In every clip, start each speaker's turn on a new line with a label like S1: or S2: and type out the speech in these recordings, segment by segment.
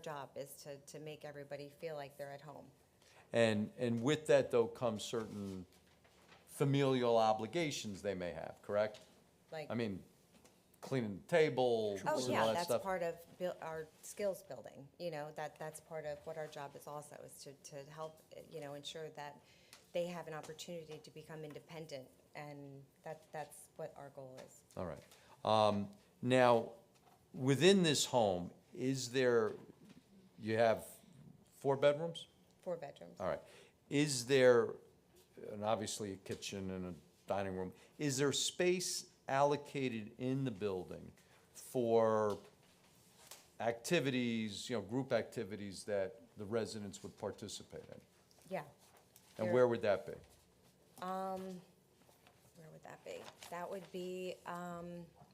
S1: job is to, to make everybody feel like they're at home.
S2: And, and with that though comes certain familial obligations they may have, correct?
S1: Like,
S2: I mean, cleaning the table, and all
S1: oh yeah,
S2: that
S1: that's
S2: stuff.
S1: part of buil- our skills building. You know, that, that's part of what our job is also, is to, to help, eh, you know, ensure that they have an opportunity to become independent. And that, that's what our goal is.
S2: All right. Um, now, within this home, is there, you have four bedrooms?
S1: Four bedrooms.
S2: All right. Is there, and obviously a kitchen and a dining room, is there space allocated in the building for activities, you know, group activities that the residents would participate in?
S1: Yeah.
S2: And
S1: There-
S2: where would that be?
S1: Where would that be? That would be um,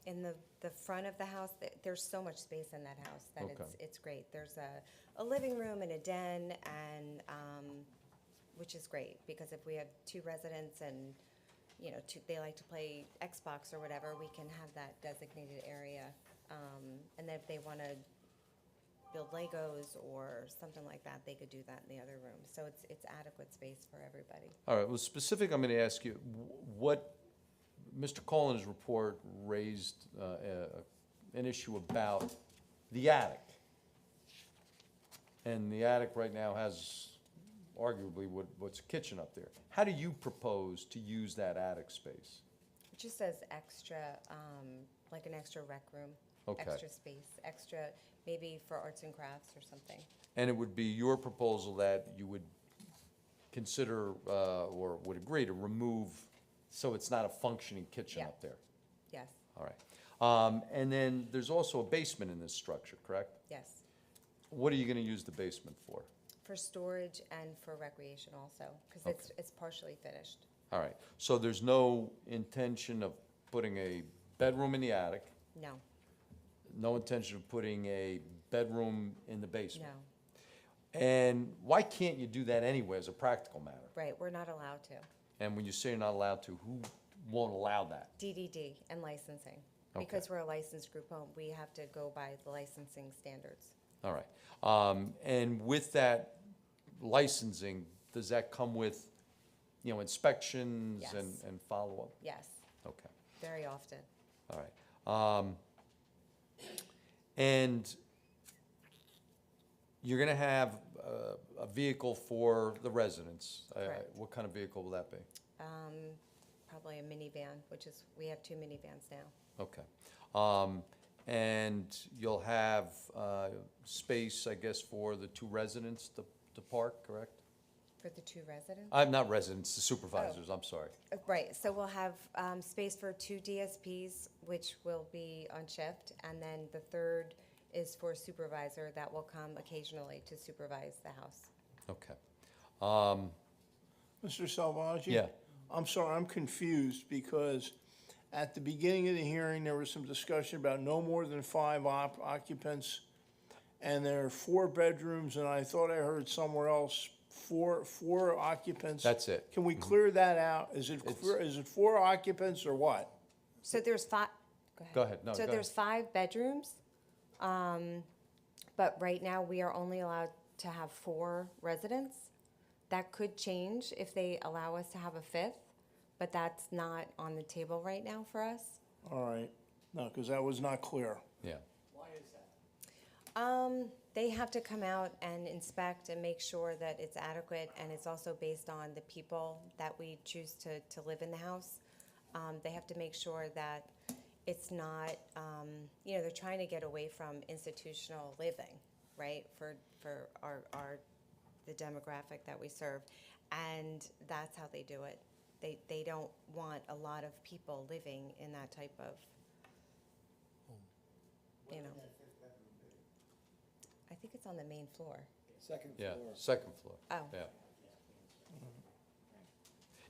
S1: in the, the front of the house. Th- There's so much space in that house that it's,
S2: Okay.
S1: it's great. There's a, a living room and a den and, um, which is great because if we have two residents and, you know, two, they like to play Xbox or whatever, we can have that designated area. Um, And then if they want to build Legos or something like that, they could do that in the other room. So it's, it's adequate space for everybody.
S2: All right, well, specific, I'm going to ask you, wh- what, Mr. Collins' report raised uh, a- an issue about the attic. And the attic right now has arguably what what's a kitchen up there. How do you propose to use that attic space?
S1: It just says extra, um, like an extra rec room.
S2: Okay.
S1: Extra space, extra, maybe for arts and crafts or something.
S2: And it would be your proposal that you would consider uh, or would agree to remove, so it's not a functioning kitchen
S1: Yeah.
S2: up there?
S1: Yes,
S2: All right. Um, And then there's also a basement in this structure, correct?
S1: yes.
S2: What are you going to use the basement for?
S1: For storage and for recreation also, because it's, it's partially finished.
S2: All right. So there's no intention of putting a bedroom in the attic,
S1: No,
S2: no intention of putting a bedroom in the
S1: no,
S2: basement? And why can't you do that anyway as a practical matter?
S1: right, we're not allowed to.
S2: And when you say you're not allowed to, who won't allow that?
S1: DDD and licensing.
S2: Okay.
S1: Because we're a licensed group home, we have to go by the licensing standards.
S2: All right. Um, And with that licensing, does that come with, you know, inspections and
S1: Yes.
S2: and follow-up?
S1: Yes,
S2: Okay.
S1: very often.
S2: All right. Um, and you're gonna have uh, a vehicle for the residents. I- I-
S1: Correct.
S2: What kind of vehicle will that be?
S1: Um, probably a minivan, which is, we have two minivans now.
S2: Okay. Um, and you'll have, uh, space, I guess, for the two residents to, to park, correct?
S1: For the two residents?
S2: I'm not residents, the supervisors, I'm sorry.
S1: Uh, Right, so we'll have um, space for two DSPs, which will be on shift, and then the third is for supervisor that will come occasionally to supervise the house.
S2: Okay. Um,
S3: Mr. Salvaggi?
S2: Yeah.
S3: I'm sorry, I'm confused because at the beginning of the hearing, there was some discussion about no more than five op- occupants. And there are four bedrooms, and I thought I heard somewhere else, four, four occupants.
S2: That's it. Mm-hmm.
S3: Can we clear that out? Is it,
S2: It's-
S3: clear- is it four occupants or what?
S1: So there's five, go ahead.
S2: Go ahead, no, go
S1: So
S2: ahead.
S1: there's five bedrooms, um, but right now, we are only allowed to have four residents. That could change if they allow us to have a fifth, but that's not on the table right now for us.
S3: All right, no, because that was not clear.
S2: yeah.
S1: Um, they have to come out and inspect and make sure that it's adequate, and it's also based on the people that we choose to, to live in the house. Um, they have to make sure that it's not, um, you know, they're trying to get away from institutional living, right? For, for our, our, the demographic that we serve, and that's how they do it. They, they don't want a lot of people living in that type of, you know. I think it's on the main floor.
S4: Second
S2: Yeah,
S4: floor.
S2: second floor.
S1: Oh.
S2: Yeah.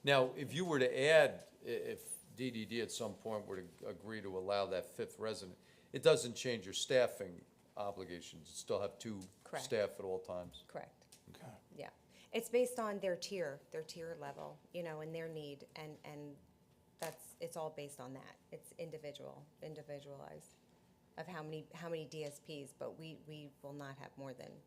S2: Now, if you were to add, i- if DDD at some point were to agree to allow that fifth resident, it doesn't change your staffing obligations. You still have two
S1: Correct.
S2: staff at all times.
S1: Correct.
S3: Okay.
S1: Yeah. It's based on their tier, their tier level, you know, and their need, and, and that's, it's all based on that. It's individual, individualized. of how many, how many DSPs, but we, we will not have more than